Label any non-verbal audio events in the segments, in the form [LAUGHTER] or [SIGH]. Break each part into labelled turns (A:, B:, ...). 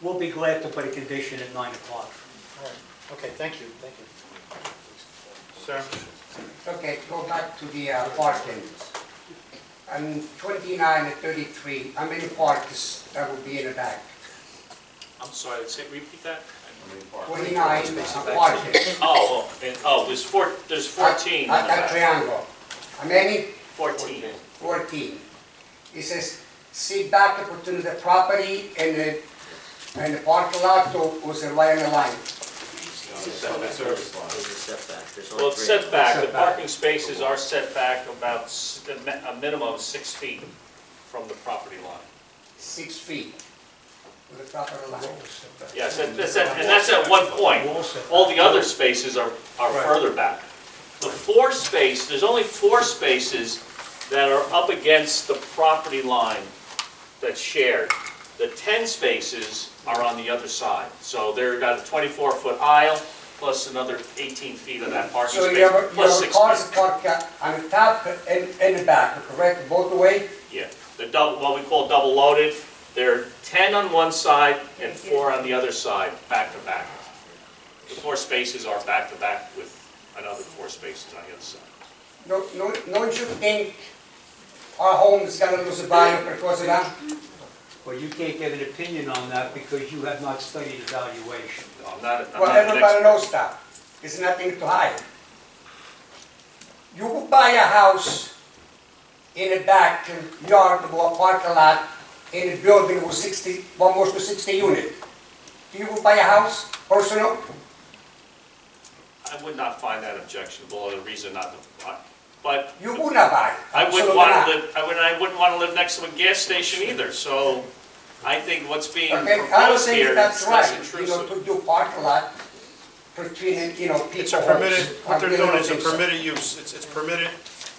A: We'll be glad to put a condition at 9 o'clock.
B: All right, okay, thank you, thank you. Sir?
C: Okay, go back to the uh, parking. I'm 29 and 33, how many parks that would be in the back?
D: I'm sorry, say, repeat that?
C: 29 uh, parking.
D: Oh, oh, and, oh, there's four, there's fourteen in the
C: At that
D: back.
C: triangle. How many?
D: Fourteen.
C: 14. It says, "See back opportunity the property and the, and the parking lot to was a line the line."
E: There's a setback, there's
D: Well,
E: only
D: it's
E: three.
D: setback, the
C: Setback.
D: parking spaces are setback about s- a mi- a minimum of six feet from the property line.
C: six feet with the property line.
D: Yes, that- that's, at- and that's at one point. All the other spaces are, are further back. The four space, there's only four spaces that are up against the property line that's shared. The 10 spaces are on the other side. So they've got a 24-foot aisle, plus another 18 feet of that parking
C: So you
D: space,
C: have, you
D: plus
C: have
D: six
C: cars
D: feet.
C: parked uh, on the top and, and the back, correct, both the way?
D: Yeah, the double, what we call double loaded, they're 10 on one side and four on the other side, back to back. The four spaces are back to back with another four spaces on the other side.
C: No, no, don't you think our home is gonna lose value because of that?
A: Well, you can't get an opinion on that because you have not studied evaluation.
D: I'm not, I'm
C: Well,
D: not an
C: everybody
D: expert.
C: knows that, there's nothing to hide. You could buy a house in the back yard or parking lot in a building with sixty, almost to sixty unit. Do you would buy a house, personal?
D: I would not find that objectionable, or a reason not to, but
C: You would not buy.
D: I wouldn't
C: Absolutely
D: want
C: not.
D: to live, I wouldn't, I wouldn't want to live next to a gas station either, so I think what's being
C: Okay, I don't
D: proposed
C: think
D: here
C: that's
D: is less
C: right, you know,
D: intrusive.
C: to do parking lot between, you know,
B: It's
C: people
B: a
C: homes.
B: permitted,
C: I
B: what they're
C: really
B: doing
C: don't
B: is a
C: think so.
B: permitted use, it's, it's permitted,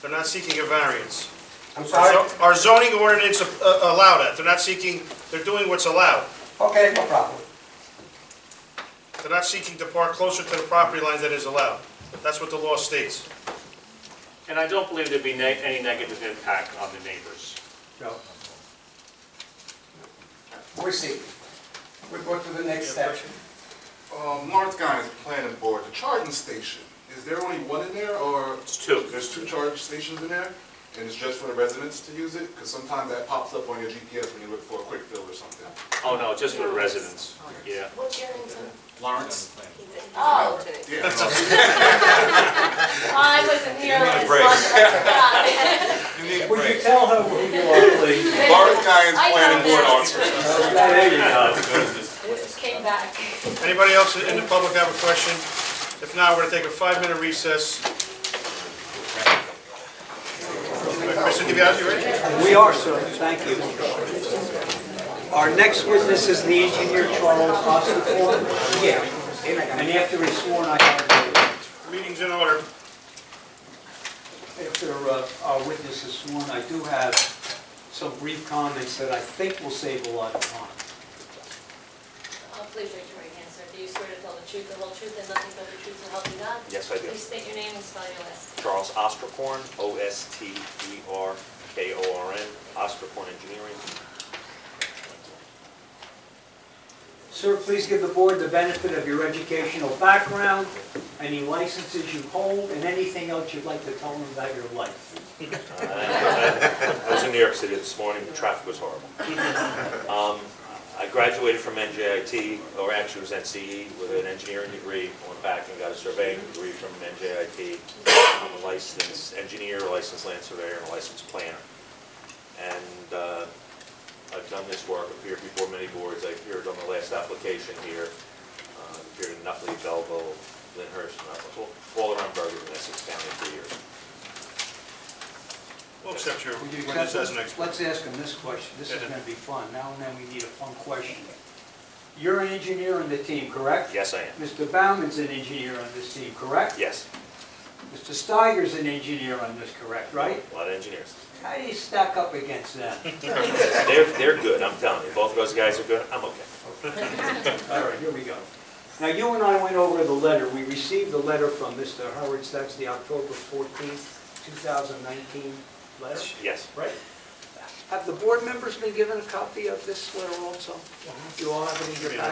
B: they're not seeking a variance.
C: I'm
B: Our
C: sorry,
B: zo- Our zoning ordinance uh, allow that, they're not seeking, they're doing what's allowed.
C: okay, no problem.
B: They're not seeking to park closer to the property line than is allowed. That's what the law states.
D: And I don't believe there'd be ne- any negative impact on the neighbors.
A: No.
C: We'll see. We'll go to the next step.
F: Um, Lawrence Guy is planning board, the charging station, is there only one in there, or?
D: It's two.
F: There's two charge stations in there, and it's just for the residents to use it? Because sometimes that pops up on your GPS when you look for a quick fill or
G: [LAUGHS]
F: something.
D: Oh, no, just for the residents, yeah.
G: What's your name, sir?
F: Lawrence?
G: Oh,
F: Yeah. no.
G: I wasn't here last month.
A: Would you tell her who you are, please?
F: Lawrence Guy is
G: I
F: planning
G: know
F: board
G: this.
F: officer.
A: There you go.
G: Came back.
B: Anybody else in the public have a question? If not, we're gonna take a five-minute recess. Mr. DiBiase, you ready?
A: We are, sir, thank you. Our next witness is the engineer Charles Ostakorn. Yeah. And after he's sworn, I have,
B: Meeting's in order.
A: after uh, our witness is sworn, I do have some brief comments that I think will save a lot of time.
G: Oh, Please raise your right hand, sir. Do you swear to tell the truth, the whole truth, and nothing but the truth to help you God?
E: Yes, I do.
G: Please state your name and spell your last.
E: Charles Ostrakorn, E O-S-T-E-R-K-O-R-N, Ostrakorn Engineering.
A: Sir, please give the board the benefit of your educational background, any licenses you hold, and anything else you'd like to tell them about your life.
E: Uh, I I was in New York City this morning, the traffic was horrible. [LAUGHS] Um, I graduated from NJIT, or actually it was NCE, with an engineering degree. Went back and got a surveying degree from NJIT. I'm a licensed engineer, a licensed land surveyor, and a licensed planner. And uh, I've done this work, appeared before many boards. I appeared on the last application here. Uh, Appeared in Nutley, Belleville, Lyndhurst, and Nutley, all around Bergen and Essex County for years.
B: We'll accept your,
A: Would you
B: when
A: accept
B: this
A: this?
B: as an expert.
A: Let's ask him this question, this is
B: Yeah.
A: gonna be fun, now and then we need a fun question. You're an engineer on the team, correct?
E: Yes, I am.
A: Mr. Bauman's an engineer on this team, correct?
E: Yes,
A: Mr. Steiger's an engineer on this, correct, right?
E: a lot of engineers.
A: How do you stack up against them?
E: They're, they're good, I'm telling you. Both of those guys are good, I'm okay.
A: All right, here we go. Now, you and I went over the letter, we received the letter from Mr. Hurwitz, that's the October fourteenth, two thousand nineteen letter,
E: Yes,
A: right? Have the board members been given a copy of this letter also? You all have it in your packet?